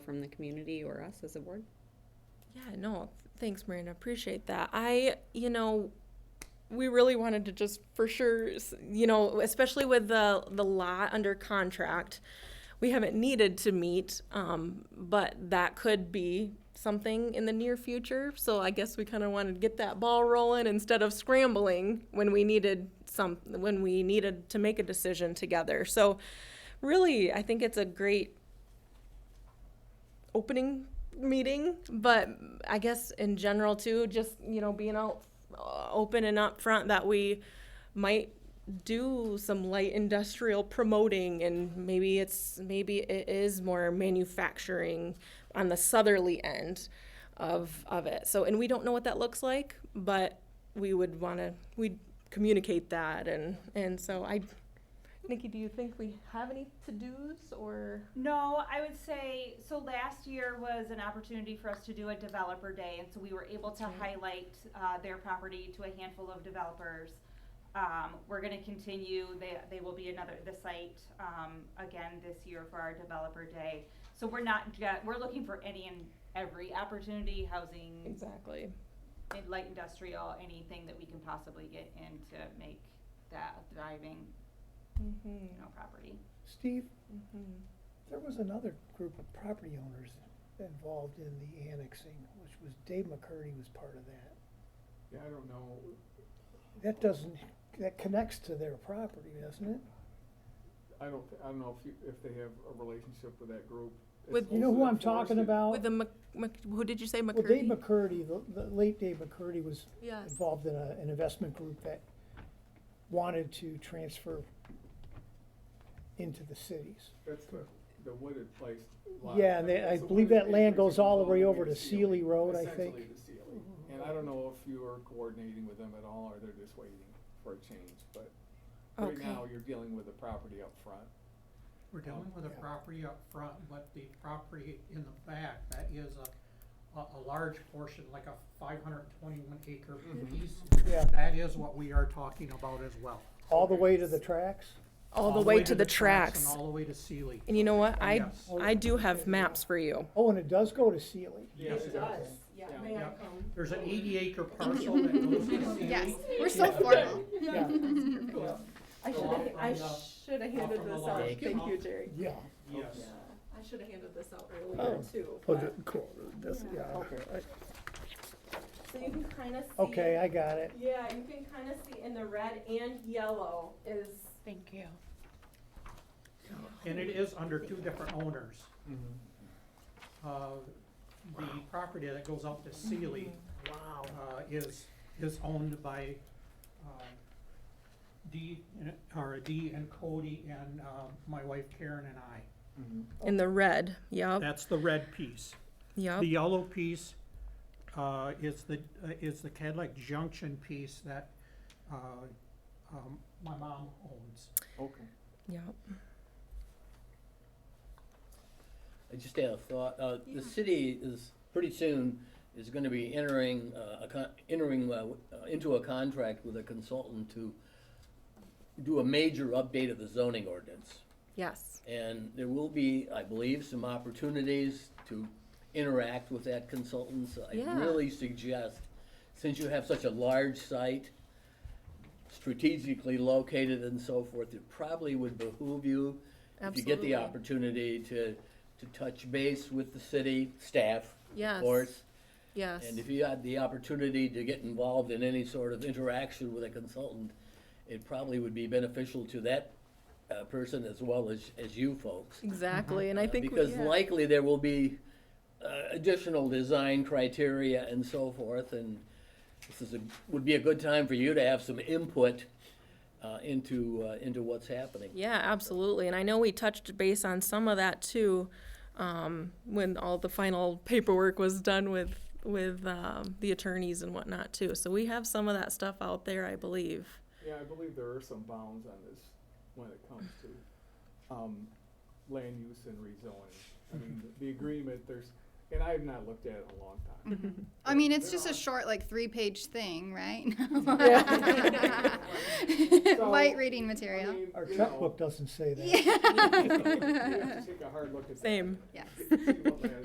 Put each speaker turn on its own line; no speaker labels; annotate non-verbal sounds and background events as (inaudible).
from the community or us as a board?
Yeah, no, thanks, Marina. Appreciate that. I, you know, we really wanted to just for sure, s- you know, especially with the the lot under contract, we haven't needed to meet, um, but that could be something in the near future. So I guess we kind of wanted to get that ball rolling instead of scrambling when we needed some when we needed to make a decision together. So really, I think it's a great opening meeting, but I guess in general too, just you know, being out uh, open and upfront that we might do some light industrial promoting and maybe it's maybe it is more manufacturing on the southerly end of of it. So and we don't know what that looks like, but we would want to we communicate that and and so I Nikki, do you think we have any to-dos or
No, I would say, so last year was an opportunity for us to do a developer day, and so we were able to highlight, uh, their property to a handful of developers. Um, we're gonna continue, they, they will be another, the site, um, again this year for our developer day. So we're not, ju- we're looking for any and every opportunity, housing,
Exactly.
in- light industrial, anything that we can possibly get in to make that a thriving,
Mm-hmm.
you know, property.
Steve,
Mm-hmm.
there was another group of property owners involved in the annexing, which was Dave McCurdy was part of that.
Yeah, I don't know.
That doesn't, that connects to their property, doesn't it?
I don't, I don't know if you, if they have a relationship with that group. It's
With-
You know who I'm
mostly
talking
enforcement.
about?
With the Mc, Mc, who did you say McCurdy?
Well, Dave McCurdy, the, the late Dave McCurdy was
Yes.
involved in a, an investment group that wanted to transfer into the cities.
That's the, the wooded place lot.
Yeah, and they- I
It's a
believe
wooded
that land
acreage
goes
that
all the
goes
way over to Sealy Road, I
Essentially
think.
to Sealy. And I don't know if you are coordinating with them at all, or they're just waiting for a change, but right
Okay.
now, you're dealing with the property up front.
We're dealing with the property up front, but the property in the back, that is a, a, a large portion, like a five hundred and twenty-one acre piece.
Yeah.
That is what we are talking about as well.
All the way to the tracks?
all the way to the
And
tracks.
all the way to Sealy.
And you know what? I,
Yes.
I do have maps for you.
Oh, and it does go to Sealy.
Yes,
it
does, yeah,
Yeah.
may I
Yeah.
come?
There's an eighty acre parcel that goes to Sealy.
Yes, we're so formal.
Yeah,
(laughs)
Yeah.
I
should have- I
should have
handed this out. Thank you,
Jerry.
yeah.
Yes.
I should have handed this out
Oh.
earlier too.
Oh, ju- cool, that's, yeah.
So you can kind of see.
Okay, I got it.
Yeah, you can kind of see in the red and yellow is. Thank you.
And it is under two different owners.
Mm-hmm.
Uh, the property that goes up to Sealy
Wow.
uh, is, is owned by, um, Dee, and- or Dee and Cody and, um, my wife Karen and I.
Mm-hmm.
In the red, yep,
That's the red piece.
yep.
The yellow piece, uh, is the, uh, is the Cadillac Junction piece that, uh, um, my mom owns.
Okay.
Yep.
I just had a thought, uh, the city is, pretty soon, is gonna be entering, uh, a con- entering, uh, w- uh, into a contract with a consultant to do a major update of the zoning ordinance.
Yes.
And there will be, I believe, some opportunities to interact with that consultant, so I
Yeah.
really suggest, since you have such a large site, strategically located and so forth, it probably would behoove you, if you get
Absolutely.
the opportunity to, to touch base with the city staff,
Yes.
of course.
Yes.
And if you had the opportunity to get involved in any sort of interaction with a consultant, it probably would be beneficial to that, uh, person as well as, as you folks.
Exactly,
(laughs)
and I
Uh,
think. we-
Because
yeah.
likely there will be uh, additional design criteria and so forth, and this is a, would be a good time for you to have some input uh, into, uh, into what's happening.
Yeah, absolutely. And I know we touched base on some of that too, um, when all the final paperwork was done with, with, um, the attorneys and whatnot too. So we have some of that stuff out there, I believe.
Yeah, I believe there are some bounds on this when it comes to, um, land use and rezoning. I mean, the- the agreement, there's, and I have not looked at it in a long time.
I mean, it's
There
just a
are-
short, like, three page thing, right? (laughs)
Mm-hmm. So,
Light reading
I
material.
mean,
Our
you know,
checkbook doesn't say that.
You have to take a hard look at that.
Same.
Yes.
See what that